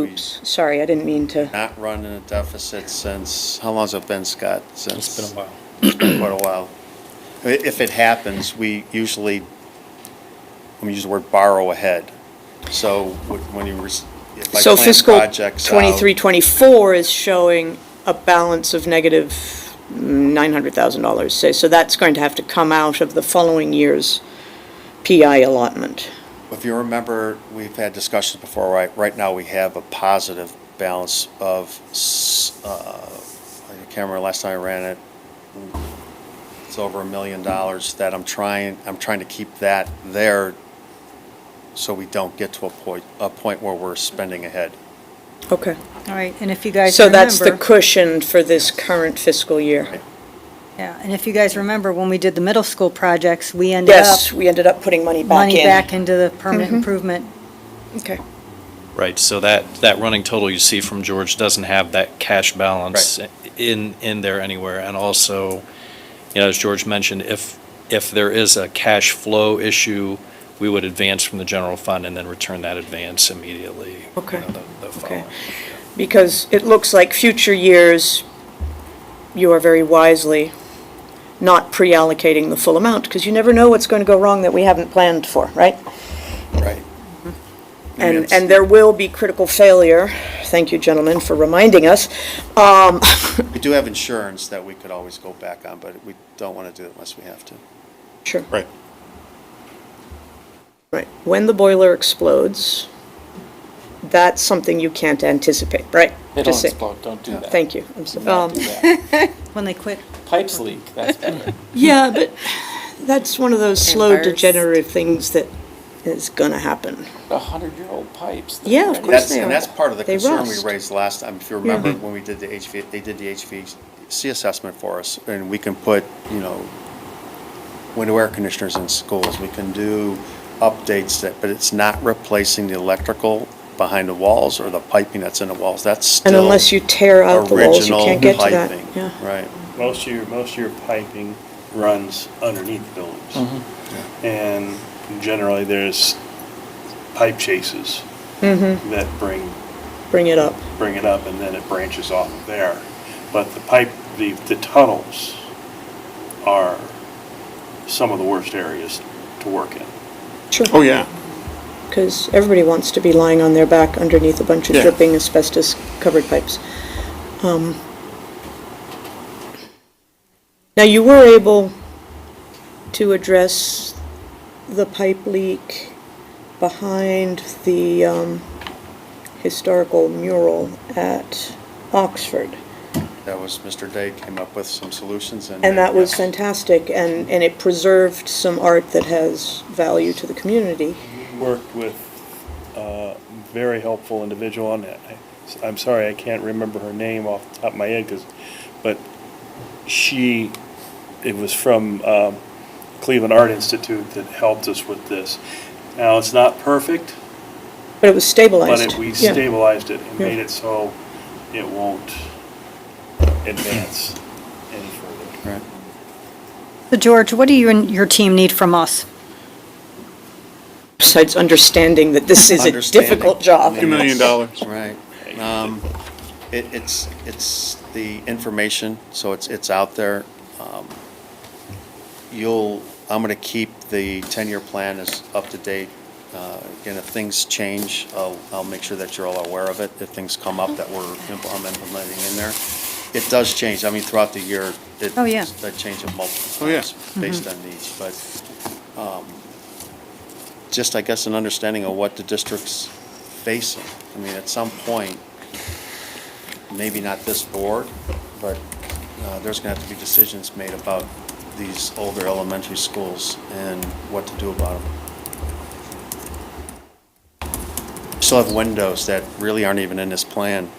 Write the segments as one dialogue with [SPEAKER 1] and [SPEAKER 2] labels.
[SPEAKER 1] Oops, sorry, I didn't mean to.
[SPEAKER 2] Not run in a deficit since, how long's it been, Scott?
[SPEAKER 3] It's been a while.
[SPEAKER 2] been quite a while. I- If it happens, we usually, let me use the word borrow ahead. So wh- when you, rec- if I
[SPEAKER 1] So
[SPEAKER 2] plan
[SPEAKER 1] fiscal
[SPEAKER 2] projects uh, out.
[SPEAKER 1] 23, 24 is showing a balance of negative $900,000, say, so that's going to have to come out of the following year's PI allotment.
[SPEAKER 2] If you remember, we've had discussions before, right, right now we have a positive balance of, s- uh, I can't remember last time I ran it, it's over a million dollars that I'm trying, I'm trying to keep that there so we don't get to a point, a point where we're spending ahead.
[SPEAKER 1] Okay.
[SPEAKER 4] All right, and if you guys
[SPEAKER 1] So
[SPEAKER 4] remember.
[SPEAKER 1] that's the cushion for this current fiscal year.
[SPEAKER 4] Yeah, and if you guys remember, when we did the middle school projects, we ended up
[SPEAKER 1] Yes, we ended up putting money back in.
[SPEAKER 4] money back into the permanent improvement.
[SPEAKER 1] Okay.
[SPEAKER 3] Right, so that, that running total you see from George doesn't have that cash balance in, in there anywhere. And also, you know, as George mentioned, if, if there is a cash flow issue, we would advance from the general fund and then return that advance immediately. you
[SPEAKER 1] Okay,
[SPEAKER 3] know, the- the following.
[SPEAKER 1] Because it looks like future years, you are very wisely not pre-allocating the full amount, because you never know what's going to go wrong that we haven't planned for, right?
[SPEAKER 2] Right.
[SPEAKER 1] Mm-hmm. And, and there will be critical failure. Thank you, gentlemen, for reminding us. Um,
[SPEAKER 2] We do have insurance that we could always go back on, but we don't want to do it unless we have to.
[SPEAKER 1] Sure.
[SPEAKER 2] Right.
[SPEAKER 1] Right. When the boiler explodes, that's something you can't anticipate, right?
[SPEAKER 5] They don't
[SPEAKER 1] Just say-
[SPEAKER 5] explode, don't do that.
[SPEAKER 1] Thank you. I'm
[SPEAKER 5] Do
[SPEAKER 1] so-
[SPEAKER 5] not
[SPEAKER 1] um,
[SPEAKER 5] do that.
[SPEAKER 4] When they quit,
[SPEAKER 5] Pipes leak, that's better.
[SPEAKER 1] Yeah, but that's one of those slow
[SPEAKER 6] fires.
[SPEAKER 1] degenerative things that is gonna happen.
[SPEAKER 5] A hundred-year-old pipes. they're
[SPEAKER 1] Yeah, of
[SPEAKER 5] ready.
[SPEAKER 1] course
[SPEAKER 2] That's,
[SPEAKER 1] they
[SPEAKER 2] and
[SPEAKER 1] are.
[SPEAKER 2] that's part of the
[SPEAKER 1] They
[SPEAKER 2] concern we
[SPEAKER 1] rust.
[SPEAKER 2] raised last time, if you remember, when we did the HV, they did the HVC assessment for us, and we can put, you know, window air conditioners in schools, we can do updates that, but it's not replacing the electrical behind the walls or the piping that's in the walls, that's still
[SPEAKER 1] And unless you tear out the walls, you
[SPEAKER 2] original
[SPEAKER 1] can't get to that.
[SPEAKER 2] piping.
[SPEAKER 1] Yeah.
[SPEAKER 2] Right,
[SPEAKER 7] Most of your, most of your piping runs underneath buildings. And generally, there's pipe chases that bring,
[SPEAKER 1] Bring it up.
[SPEAKER 7] bring it up, and then it branches off of there. But the pipe, the, the tunnels are some of the worst areas to work in.
[SPEAKER 1] Sure. Oh, yeah. Because everybody wants to be lying on their back underneath a bunch of dripping asbestos-covered pipes. Um, Now, you were able to address the pipe leak behind the um, historical mural at Oxford.
[SPEAKER 2] that was, Mr. Day came up with some solutions and.
[SPEAKER 1] And that was
[SPEAKER 2] yes.
[SPEAKER 1] fantastic, and, and it preserved some art that has value to the community.
[SPEAKER 7] worked with a very helpful individual on that. I- I'm sorry, I can't remember her name off the top of my head, 'cause- but she, it was from um, Cleveland Art Institute that helped us with this. Now, it's not perfect,
[SPEAKER 1] But it was
[SPEAKER 7] but
[SPEAKER 1] stabilized.
[SPEAKER 7] it- we
[SPEAKER 1] Yeah.
[SPEAKER 7] stabilized it and
[SPEAKER 1] Yeah.
[SPEAKER 7] made it so it won't advance any further.
[SPEAKER 2] Right.
[SPEAKER 4] so George, what do you and your team need from us?
[SPEAKER 1] Besides understanding that this is a
[SPEAKER 2] Understanding.
[SPEAKER 1] difficult job.
[SPEAKER 2] Two
[SPEAKER 8] million dollars.
[SPEAKER 2] Right. Um, It, it's, it's the information, so it's, it's out there. Um, You'll, I'm gonna keep the ten-year plan as up to date. Uh, Again, if things change, I'll, I'll make sure that you're all aware of it, if things come up that we're impl- I'm implementing in there. It does change, I mean, throughout the year, it.
[SPEAKER 4] Oh, yeah. Mm-hmm.
[SPEAKER 2] I change it multiple
[SPEAKER 8] Oh, yeah.
[SPEAKER 2] times based on needs, but um, just, I guess, an understanding of what the district's facing. I mean, at some point, maybe not this board, but uh, there's going to have to be decisions made about these older elementary schools and what to do about them. Still have windows that really aren't even in this plan.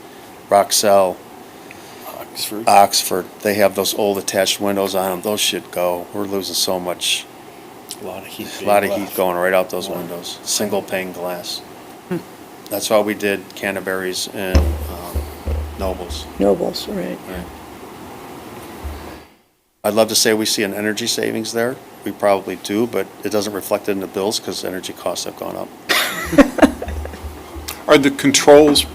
[SPEAKER 2] Roxell,
[SPEAKER 7] Oxford.
[SPEAKER 2] Oxford, they have those old attached windows on them. Those should go. We're losing so much,
[SPEAKER 7] A lot of heat.
[SPEAKER 2] a lot of
[SPEAKER 7] being
[SPEAKER 2] heat
[SPEAKER 7] left.
[SPEAKER 2] going right out those
[SPEAKER 7] Wow.
[SPEAKER 2] windows, single pane glass. That's why we did Canterbury's and um, Nobles.
[SPEAKER 1] Nobles, right.
[SPEAKER 2] I'd love to say we see an energy savings there. We probably do, but it doesn't reflect it in the bills because energy costs have gone up.
[SPEAKER 8] Are the controls